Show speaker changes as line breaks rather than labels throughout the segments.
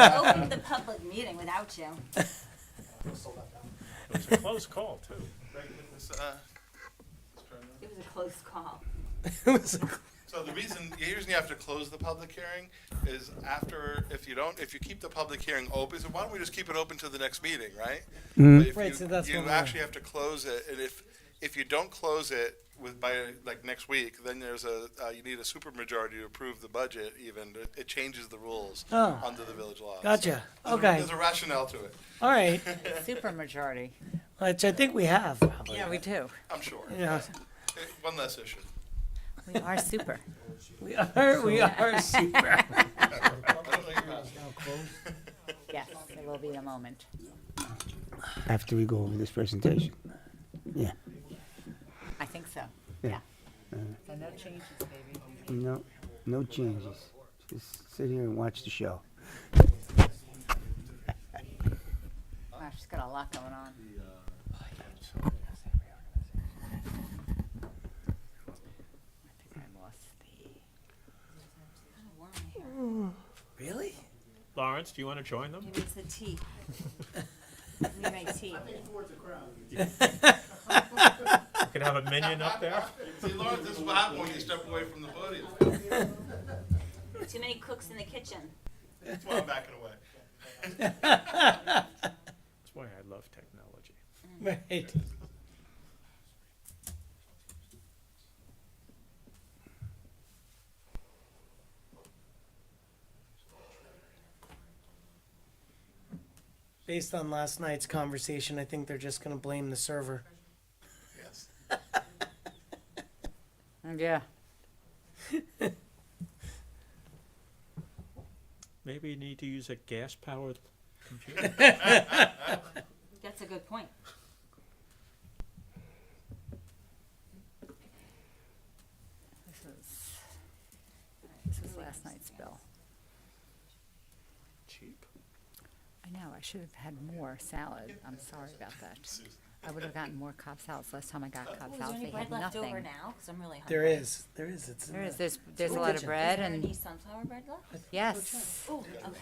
opened the public meeting without you.
It was a close call, too.
Right, with this, uh, this turn on.
It was a close call.
So the reason, the reason you have to close the public hearing is after, if you don't, if you keep the public hearing open, so why don't we just keep it open to the next meeting, right? But if
Right,
you-
so that's uh,
You
what we're-
actually have to close it, and if, if you don't close it with, by, like, next week, then there's a, uh, you need a supermajority to approve the budget even, It- it changes the rules
Oh.
under the village law.
Gotcha.
So there's a-
Okay.
There's a rationale to it,
All right,
Super majority.
which I think we have, probably.
Yeah, we do.
I'm sure.
Yeah,
Uh, One less issue.
We are super.
we are, we are super.
I don't know your mask.
Yes, there will be a moment.
after we go over this presentation. Yeah,
I think so.
Yeah.
So no changes, baby.
no, no changes. Just sit here and watch the show.
Wow, she's got a lot going on. I think I lost the.
Really?
Lawrence, do you want to join them?
He needs the tea. Need my tea.
You can have a minion up there.
See, Lawrence, this is what happens when you step away from the podium.
Too many cooks in the kitchen.
That's why I'm backing away.
That's why I love technology.
Right. Based on last night's conversation, I think they're just gonna blame the server.
Yes.
Yeah.
Maybe you need to use a gas powered computer.
That's a good point.
This is, this is last night's bill.
Cheap.
I know, I should have had more salad. I'm sorry about that. I would have gotten more Cobb salads. Last time I got Cobb
Is there
salads,
any
they had
bread left over
nothing.
now? Because I'm really hungry.
There is, there is, it's. in
There is,
the-
there's, there's a
Go
lot
get
of
you.
bread
there any
and,
sunflower bread left?
yes.
Oh, okay.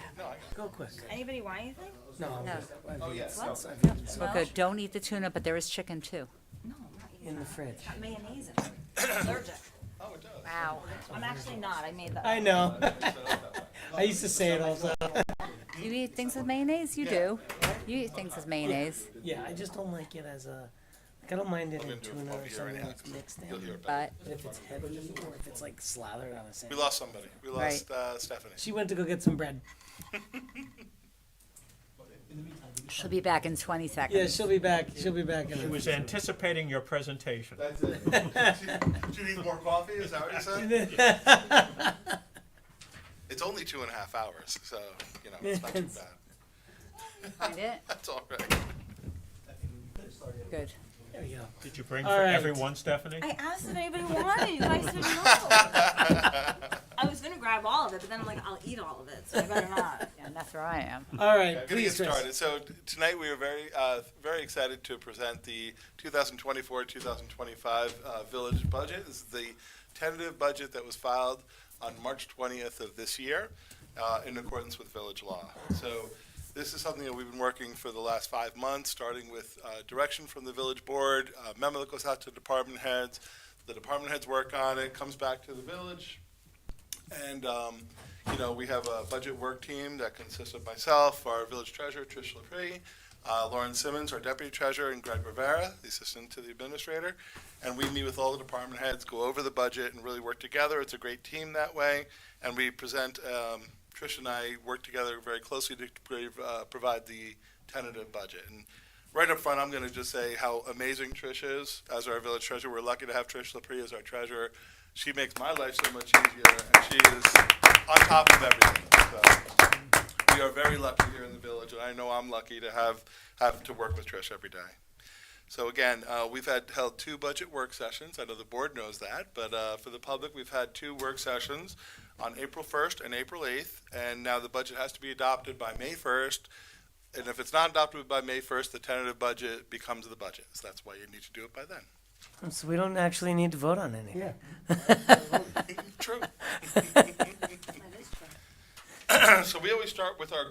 Go quick.
Anybody want anything?
No.
No,
Oh, yes.
What?
we're good. Don't eat the tuna, but there is chicken too.
No, I'm not eating.
In the fridge.
Got mayonnaise in it. I'm Allergic.
Oh, it does.
Wow.
I'm actually not. I made that.
I know. I used to say it all the time.
You eat things with mayonnaise? You do. You eat things with mayonnaise,
Yeah, I just don't like it as a, like, I don't mind it
I'm
in
gonna do a
tuna
flop
or
here
something
anyhow,
that's
'cause
mixed
You'll
in.
hear it back.
but
But if it's heavy or if it's like slathered on a
We
sandwich.
lost somebody. We lost uh, Stephanie.
She went to go get some bread.
she'll be back in 20
Yeah,
seconds.
she'll be back. She'll be back in
He was anticipating your presentation.
That's it. Do you need more coffee? Is that what you said? It's only two and a half hours, so, you know, it's not too bad.
Find it?
That's all right.
Good.
There we go.
Did you bring
All
for
right.
everyone, Stephanie?
I asked if anybody wanted. You guys said no. I was gonna grab all of it, but then I'm like, I'll eat all of it, so I better not.
Yeah, and that's where I am.
All right,
Good to get
please, Chris.
started. So t- tonight we are very, uh, very excited to present the 2024-2025 uh, village budget. This is the tentative budget that was filed on March 20th of this year uh, in accordance with village law. So this is something that we've been working for the last five months, starting with uh, direction from the village board, uh, a memo that goes out to department heads. The department heads work on it, comes back to the village, and, um, you know, we have a budget work team that consists of myself, our village treasurer, Trish LaPree, uh, Lauren Simmons, our deputy treasurer, and Greg Rivera, the assistant to the administrator. And we meet with all the department heads, go over the budget, and really work together. It's a great team that way. And we present, um, Trish and I work together very closely to prov- uh, provide the tentative budget. And right up front, I'm going to just say how amazing Trish is as our village treasurer. We're lucky to have Trish LaPree as our treasurer. She makes my life so much easier, and she is on top of everything. So we are very lucky here in the village, and I know I'm lucky to have have to work with Trish every day. So again, uh, we've had held two budget work sessions. I know the board knows that, but uh, for the public, we've had two work sessions on April 1st and April 8th, and now the budget has to be adopted by May 1st. And if it's not adopted by May 1st, the tentative budget becomes the budget. So that's why you need to do it by then.
So we don't actually need to vote on anything.
Yeah.
True.
That is true.
so we always start with our